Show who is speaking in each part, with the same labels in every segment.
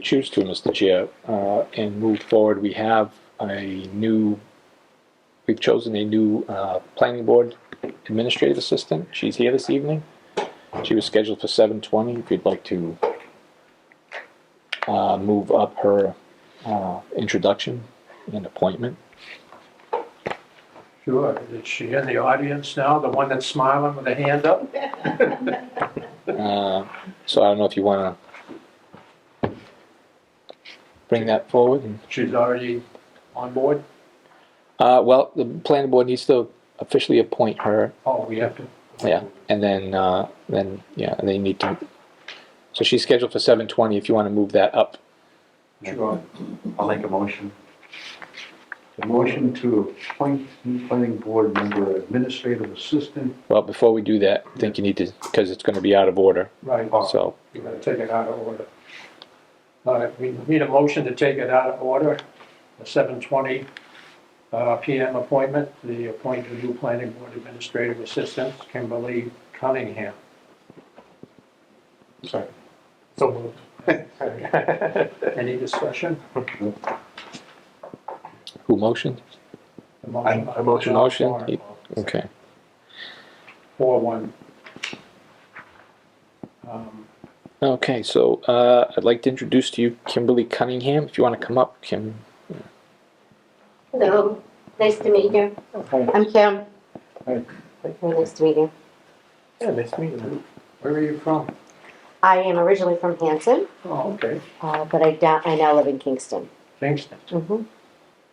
Speaker 1: choose to, Mr. Chair, uh, and move forward, we have a new, we've chosen a new uh, planning board administrative assistant. She's here this evening. She was scheduled for 7:20. If you'd like to uh, move up her uh, introduction and appointment.
Speaker 2: Sure. Is she in the audience now, the one that's smiling with a hand up?
Speaker 1: Uh, So I don't know if you want to bring that forward. and-
Speaker 2: She's already on board?
Speaker 1: Uh, Well, the planning board needs to officially appoint her
Speaker 2: Oh, we have to,
Speaker 1: Yeah, and then, uh, then, yeah, they need to, so she's scheduled for seven twenty, if you wanna move that up.
Speaker 2: sure.
Speaker 3: I'll make a motion. A motion to appoint new planning board member administrative assistant.
Speaker 1: Well, before we do that, I think you need to, cause it's gonna be out of order,
Speaker 2: Right,
Speaker 1: so,
Speaker 2: you're gonna take it out of order. All right, we need a motion to take it out of order, the seven twenty PM appointment, the appointed new planning board administrative assistant, Kimberly Cunningham.
Speaker 4: Sorry. So moved.
Speaker 2: Any discussion?
Speaker 1: who motioned?
Speaker 2: The motion-
Speaker 4: I motion.
Speaker 1: Motion? Okay,
Speaker 2: Four one. Um,
Speaker 1: okay, so, uh, I'd like to introduce to you Kimberly Cunningham, if you wanna come up, Kim.
Speaker 5: Hello, nice to meet you. I'm Kim.
Speaker 3: Hi.
Speaker 5: Very nice to meet you.
Speaker 4: Yeah, nice to meet you.
Speaker 2: Where are you from?
Speaker 5: I am originally from Hanson,
Speaker 2: Oh, okay,
Speaker 5: uh, but I, da- I now live in Kingston.
Speaker 2: Kingston.
Speaker 5: Mm-hmm.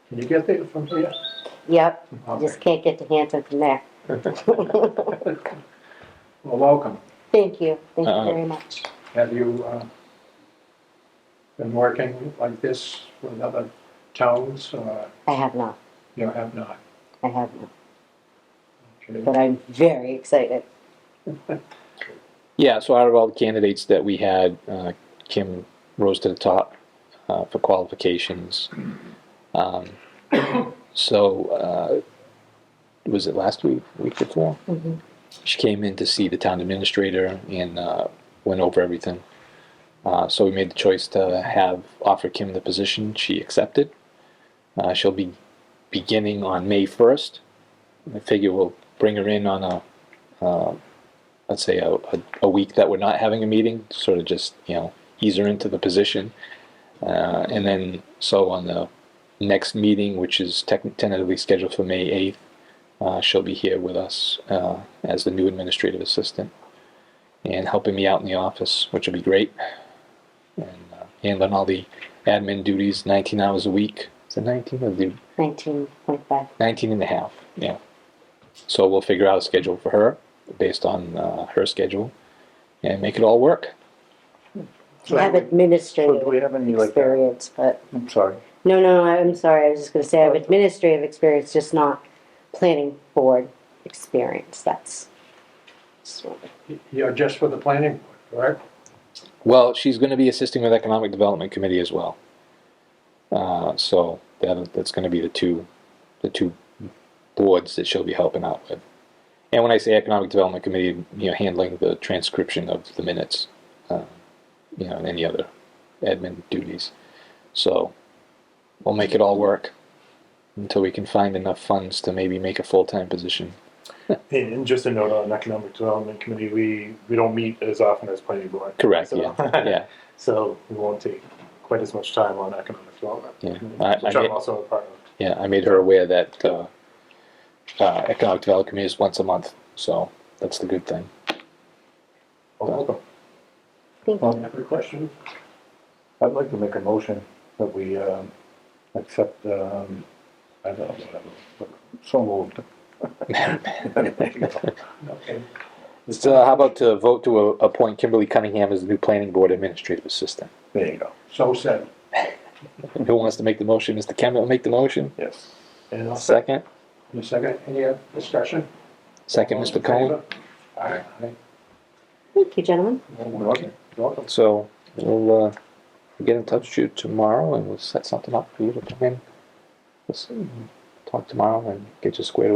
Speaker 2: Can you get there from here?
Speaker 5: Yep, I
Speaker 2: Oh, Okay.
Speaker 5: just can't get to Hanson from there.
Speaker 2: Well, welcome.
Speaker 5: Thank you, thank
Speaker 1: Uh,
Speaker 5: you very much.
Speaker 2: Have you uh, been working like this with other towns? or
Speaker 5: I have not,
Speaker 2: You have not?
Speaker 5: I have not,
Speaker 2: Okay.
Speaker 5: but I'm very excited.
Speaker 1: Yeah, so out of all the candidates that we had, uh, Kim rose to the top uh, for qualifications. Um, so, uh, was it last week, week before?
Speaker 5: Mhm.
Speaker 1: She came in to see the town administrator and uh, went over everything. Uh, so we made the choice to have offer Kim the position. She accepted. Uh, she'll be beginning on May 1st. I figure we'll bring her in on a let's say a, a, a week that we're not having a meeting, sort of just you know ease her into the position, uh, and then so on the next meeting, which is tec- tentatively scheduled for May eighth, uh, she'll be here with us uh, as the new administrative assistant and helping me out in the office, which will be great, and uh, handling all the admin duties, 19 hours a week. Is it 19 or the
Speaker 5: Nineteen point five,
Speaker 1: 19 and a half, yeah. So we'll figure out a schedule for her based on uh, her schedule and make it all work.
Speaker 5: I have
Speaker 3: So do we
Speaker 5: administrative
Speaker 3: have any like,
Speaker 5: experience, but,
Speaker 3: I'm sorry,
Speaker 5: no, no, I'm sorry, I was just gonna say I have administrative experience, just not planning board experience, that's. just what-
Speaker 2: You're just for the planning board, correct?
Speaker 1: Well, she's going to be assisting with Economic Development Committee as well. Uh, so that, that's going to be the two, the two boards that she'll be helping out with. And when I say Economic Development Committee, you know, handling the transcription of the minutes, uh, you know, and any other admin duties. So we'll make it all work until we can find enough funds to maybe make a full-time position.
Speaker 4: And and just a note on Economic Development Committee, we, we don't meet as often as planning board.
Speaker 1: Correct.
Speaker 4: So-
Speaker 1: Yeah. Yeah.
Speaker 4: So we won't take quite as much time on economic development.
Speaker 1: Yeah.
Speaker 4: Committee,
Speaker 1: I- I
Speaker 4: Which I'm
Speaker 1: get-
Speaker 4: also a part of.
Speaker 1: Yeah, I made her aware that uh, uh, economic development committee is once a month, so that's the good thing.
Speaker 4: Well, welcome.
Speaker 5: Thank
Speaker 3: Um,
Speaker 5: you.
Speaker 2: Have a question?
Speaker 3: I'd like to make a motion that we, um, accept, um, I don't know, whatever, so moved.
Speaker 2: Okay.
Speaker 1: So uh, how about to vote to a- appoint Kimberly Cunningham as the new planning board administrative assistant?
Speaker 3: There you go,
Speaker 2: So said.
Speaker 1: Who wants to make the motion? Mr. Kemmett will make the motion.
Speaker 3: yes.
Speaker 2: And I'll say,
Speaker 1: Second,
Speaker 2: in a second, any other discussion?
Speaker 1: second, Mr. Cohen.
Speaker 2: All right.
Speaker 5: Thank you, gentlemen.
Speaker 2: Welcome. Welcome.
Speaker 1: So we'll uh, get in touch with you tomorrow and we'll set something up for you to come in. Let's talk tomorrow and get you squared away.